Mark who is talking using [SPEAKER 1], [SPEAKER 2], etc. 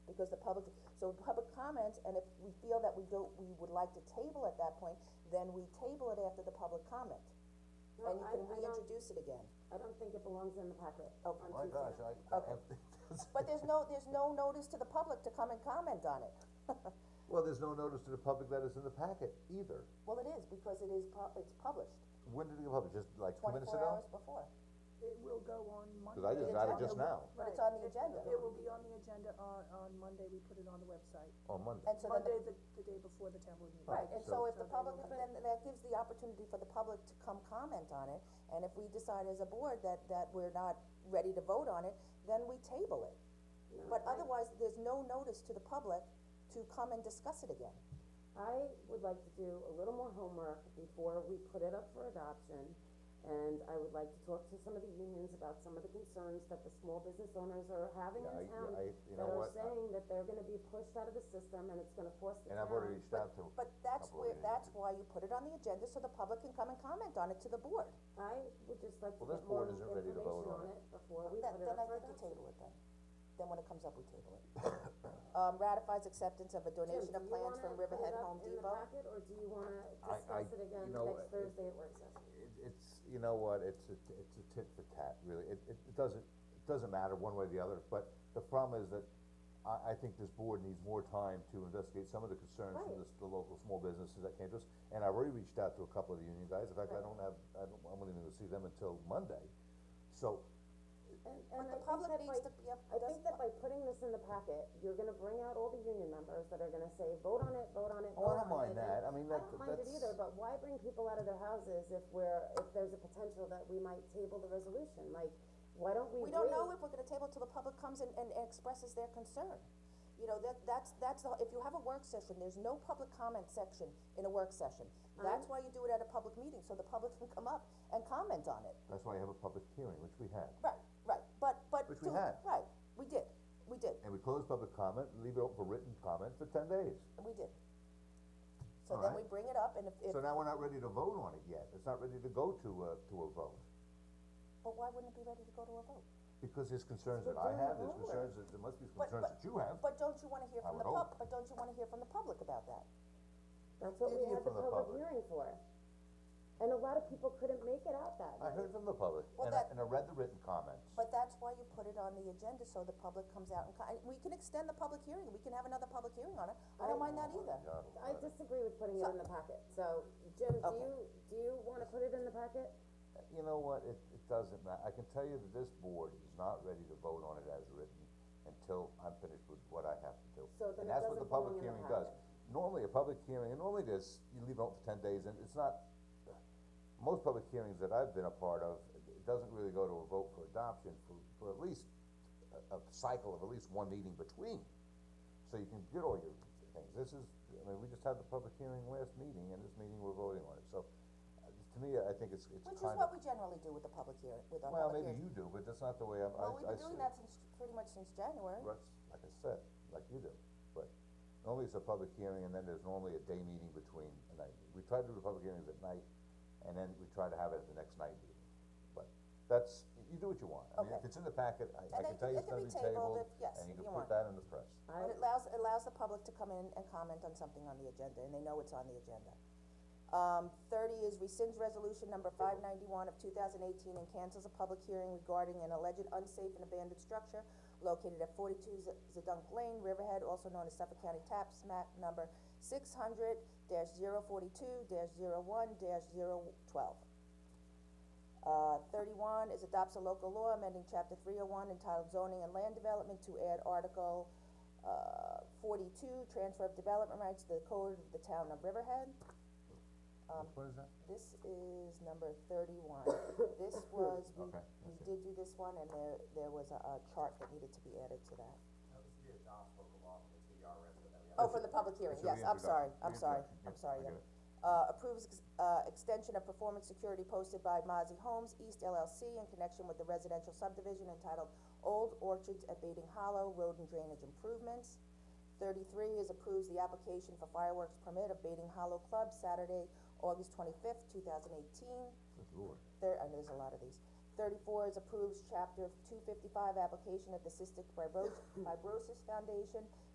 [SPEAKER 1] because the public, so public comments, and if we feel that we don't, we would like to table at that point, then we table it after the public comment.
[SPEAKER 2] No,
[SPEAKER 1] And you
[SPEAKER 2] I-
[SPEAKER 1] can
[SPEAKER 2] I don't-
[SPEAKER 1] reintroduce it again.
[SPEAKER 2] I don't think it belongs in the packet.
[SPEAKER 1] Oh.
[SPEAKER 2] on
[SPEAKER 3] My
[SPEAKER 2] Tuesday
[SPEAKER 3] gosh,
[SPEAKER 2] night.
[SPEAKER 3] I,
[SPEAKER 1] Okay.
[SPEAKER 3] I,
[SPEAKER 1] But there's no, there's no notice to the public to come and comment on it.
[SPEAKER 3] well, there's no notice to the public that it's in the packet either.
[SPEAKER 1] Well, it is, because it is pu- it's published
[SPEAKER 3] When did it go public? Just like two minutes
[SPEAKER 1] twenty-four
[SPEAKER 3] ago?
[SPEAKER 1] hours before.
[SPEAKER 4] It will go on Monday.
[SPEAKER 3] Cause I just got it just
[SPEAKER 1] agenda.
[SPEAKER 3] now,
[SPEAKER 1] But it's on
[SPEAKER 4] Right.
[SPEAKER 1] the agenda.
[SPEAKER 4] It will be on the agenda on, on Monday, we put it on the website,
[SPEAKER 3] on Oh, Monday.
[SPEAKER 1] And so then,
[SPEAKER 4] Monday,
[SPEAKER 1] the-
[SPEAKER 4] the, the day before the town board meeting.
[SPEAKER 1] right, and so
[SPEAKER 3] So-
[SPEAKER 1] if the public, then that gives the opportunity for the public to come comment on it, and if we decide as a board that, that we're not ready to vote on it, then we table it.
[SPEAKER 2] No,
[SPEAKER 1] But
[SPEAKER 2] I-
[SPEAKER 1] otherwise, there's no notice to the public to come and discuss it again.
[SPEAKER 2] I would like to do a little more homework before we put it up for adoption. And I would like to talk to some of the unions about some of the concerns that the small business owners are having
[SPEAKER 3] Yeah, I-
[SPEAKER 2] in town.
[SPEAKER 3] I- you know what, I-
[SPEAKER 2] That are saying that they're gonna be pushed out of the system and it's gonna force the
[SPEAKER 3] And
[SPEAKER 2] town.
[SPEAKER 3] I've already reached out to.
[SPEAKER 1] But that's
[SPEAKER 3] Couple
[SPEAKER 1] where,
[SPEAKER 3] of
[SPEAKER 1] that's why you put it on the agenda, so the public can come and comment on it to the board.
[SPEAKER 2] I would just like to get
[SPEAKER 3] Well, this
[SPEAKER 2] more
[SPEAKER 3] board isn't ready to
[SPEAKER 2] information
[SPEAKER 3] vote on
[SPEAKER 2] on
[SPEAKER 3] it.
[SPEAKER 2] it before we
[SPEAKER 1] Then,
[SPEAKER 2] put it
[SPEAKER 1] then
[SPEAKER 2] up
[SPEAKER 1] I
[SPEAKER 2] for
[SPEAKER 1] think you
[SPEAKER 2] adoption.
[SPEAKER 1] table it then. Then when it comes up, we table it. Um, ratifies acceptance of a donation of plans from Riverhead Home Depot.
[SPEAKER 2] do you wanna put it up in the packet,
[SPEAKER 3] I- I-
[SPEAKER 2] or do you wanna discuss it again
[SPEAKER 3] you know,
[SPEAKER 2] next
[SPEAKER 3] it-
[SPEAKER 2] Thursday at work session?
[SPEAKER 3] It, it's, you know what, it's a, t- it's a tit for tat, really, it, it, it doesn't, it doesn't matter one way or the other, but the problem is that I, I think this board needs more time to investigate some of the concerns from
[SPEAKER 2] Right.
[SPEAKER 3] this, the local small businesses that came to us, and I've already reached out to a couple of the union guys, in fact, I don't have, I don't, I'm gonna go see them until Monday, so,
[SPEAKER 2] And, and
[SPEAKER 1] the
[SPEAKER 2] I think
[SPEAKER 1] public
[SPEAKER 2] that by,
[SPEAKER 1] needs to be up-
[SPEAKER 2] I think that by putting this in the packet, you're gonna bring out all the union members that are gonna say, vote on it, vote on it,
[SPEAKER 3] Oh, I
[SPEAKER 2] vote on
[SPEAKER 3] don't mind
[SPEAKER 2] it.
[SPEAKER 3] that. I
[SPEAKER 2] And
[SPEAKER 3] mean, that-
[SPEAKER 2] I don't mind it
[SPEAKER 3] that's-
[SPEAKER 2] either, but why bring people out of their houses if we're, if there's a potential that we might table the resolution, like, why don't we
[SPEAKER 1] We
[SPEAKER 2] wait?
[SPEAKER 1] don't know if we're gonna table till the public comes and, and expresses their concern. You know, that, that's, that's, the- if you have a work session, there's no public comment section in a work session.
[SPEAKER 3] Uh-huh.
[SPEAKER 1] That's why you do it at a public meeting, so the public can come up and comment on it.
[SPEAKER 3] that's why you have a public hearing, which we had.
[SPEAKER 1] Right, right, but, but.
[SPEAKER 3] Which we
[SPEAKER 1] to-
[SPEAKER 3] had.
[SPEAKER 1] Right, we did, we did,
[SPEAKER 3] And we close public comment, leave it open for written comment for ten days,
[SPEAKER 1] we did. So then we
[SPEAKER 3] Alright.
[SPEAKER 1] bring it up and if, if,
[SPEAKER 3] so now we're not ready to vote on it yet, it's not ready to go to, uh, to a vote.
[SPEAKER 1] but why wouldn't it be ready to go to a vote?
[SPEAKER 3] Because there's concerns
[SPEAKER 2] We're
[SPEAKER 3] that I
[SPEAKER 2] doing
[SPEAKER 3] have,
[SPEAKER 2] the
[SPEAKER 3] there's
[SPEAKER 2] homework.
[SPEAKER 3] concerns that, there must be
[SPEAKER 1] But-
[SPEAKER 3] concerns
[SPEAKER 1] but-
[SPEAKER 3] that you have.
[SPEAKER 1] But don't you wanna hear
[SPEAKER 3] I
[SPEAKER 1] from the
[SPEAKER 3] would hope.
[SPEAKER 1] pub, but don't you wanna hear from the public about that?
[SPEAKER 2] That's what we
[SPEAKER 3] Hear
[SPEAKER 2] had the
[SPEAKER 3] from the
[SPEAKER 2] public
[SPEAKER 3] public.
[SPEAKER 2] hearing for. And a lot of people couldn't make it out that
[SPEAKER 3] I
[SPEAKER 2] night.
[SPEAKER 3] heard from the public,
[SPEAKER 1] Well,
[SPEAKER 3] and I,
[SPEAKER 1] that-
[SPEAKER 3] and I read the written comments.
[SPEAKER 1] But that's why you put it on the agenda, so the public comes out and, co- and we can extend the public hearing, we can have another public hearing on it, I don't mind that either.
[SPEAKER 3] God,
[SPEAKER 2] I disagree with putting it in the packet, so, Jim, do you, do you wanna put it in the packet?
[SPEAKER 3] You know what, it, it doesn't matter, I can tell you that this board is not ready to vote on it as written until I'm finished with what I have to do.
[SPEAKER 2] So then it
[SPEAKER 3] And that's what the
[SPEAKER 2] doesn't
[SPEAKER 3] public
[SPEAKER 2] belong in the
[SPEAKER 3] hearing does.
[SPEAKER 2] packet.
[SPEAKER 3] Normally, a public hearing, and normally this, you leave it open for ten days, and it's not, most public hearings that I've been a part of, it doesn't really go to a vote for adoption for, for at least a, a cycle of at least one meeting between. So you can get all your things, this is, I mean, we just had the public hearing last meeting, and this meeting we're voting on it, so, uh, to me, I think it's, it's kind
[SPEAKER 1] Which is
[SPEAKER 3] of.
[SPEAKER 1] what we generally do with the public hearing, with our
[SPEAKER 3] Well,
[SPEAKER 1] public
[SPEAKER 3] maybe
[SPEAKER 1] hearing.
[SPEAKER 3] you do, but that's not the way I'm, I,
[SPEAKER 1] Well, we've been
[SPEAKER 3] I see
[SPEAKER 1] doing
[SPEAKER 3] it.
[SPEAKER 1] that since, pretty much since January.
[SPEAKER 3] Russ, like I said, like you do, but normally it's a public hearing and then there's normally a day meeting between, and I, we try to do the public hearings at night, and then we try to have it at the next night meeting. But that's, you do what you want, I mean, if
[SPEAKER 1] Okay.
[SPEAKER 3] it's in the packet, I, I
[SPEAKER 1] And
[SPEAKER 3] can
[SPEAKER 1] it-
[SPEAKER 3] tell
[SPEAKER 1] it
[SPEAKER 3] you it's
[SPEAKER 1] can
[SPEAKER 3] gonna
[SPEAKER 1] be
[SPEAKER 3] be
[SPEAKER 1] tabled
[SPEAKER 3] tabled,
[SPEAKER 1] if- yes,
[SPEAKER 3] and you
[SPEAKER 1] if
[SPEAKER 3] can
[SPEAKER 1] you
[SPEAKER 3] put
[SPEAKER 1] want.
[SPEAKER 3] that in the press.
[SPEAKER 1] But it allows, it allows the public to come in and comment on something on the agenda, and they know it's on the agenda. Um, thirty is rescinds resolution number five ninety-one of two thousand eighteen and cancels a public hearing regarding an alleged unsafe and abandoned structure located at forty-two Z- Zedunk Lane, Riverhead, also known as Suffolk County Taps, map number six hundred dash zero forty-two dash zero one dash zero twelve. Uh, thirty-one is adopts a local law amending chapter three oh one entitled zoning and land development to add article, uh, forty-two, transfer of development rights to the code of the town of Riverhead. Um,
[SPEAKER 3] Which one is that?
[SPEAKER 1] This is number thirty-one. This was, we,
[SPEAKER 3] Okay,
[SPEAKER 1] we did do this one and there, there was a, a chart that needed to be added to that.
[SPEAKER 5] That was the adopt local law from the TDR resident that we have.
[SPEAKER 1] Oh, from the public hearing,
[SPEAKER 3] It's a
[SPEAKER 1] yes, I'm sorry,
[SPEAKER 3] reintroduction.
[SPEAKER 1] I'm sorry, I'm
[SPEAKER 3] Reintroduction, yeah,
[SPEAKER 1] sorry,
[SPEAKER 3] I
[SPEAKER 1] yeah.
[SPEAKER 3] get it.
[SPEAKER 1] Uh, approves, ex- uh, extension of performance security posted by Mozzie Homes East LLC in connection with the residential subdivision entitled Old Orchards at Bating Hollow Road and Drainage Improvements. Thirty-three is approves the application for fireworks permit of Bating Hollow Club Saturday, August twenty-fifth, two thousand eighteen.
[SPEAKER 3] Good lord.
[SPEAKER 1] There, and there's a lot of these. Thirty-four is approves chapter two fifty-five application of the Cystic Fibro- Fibrosis Foundation,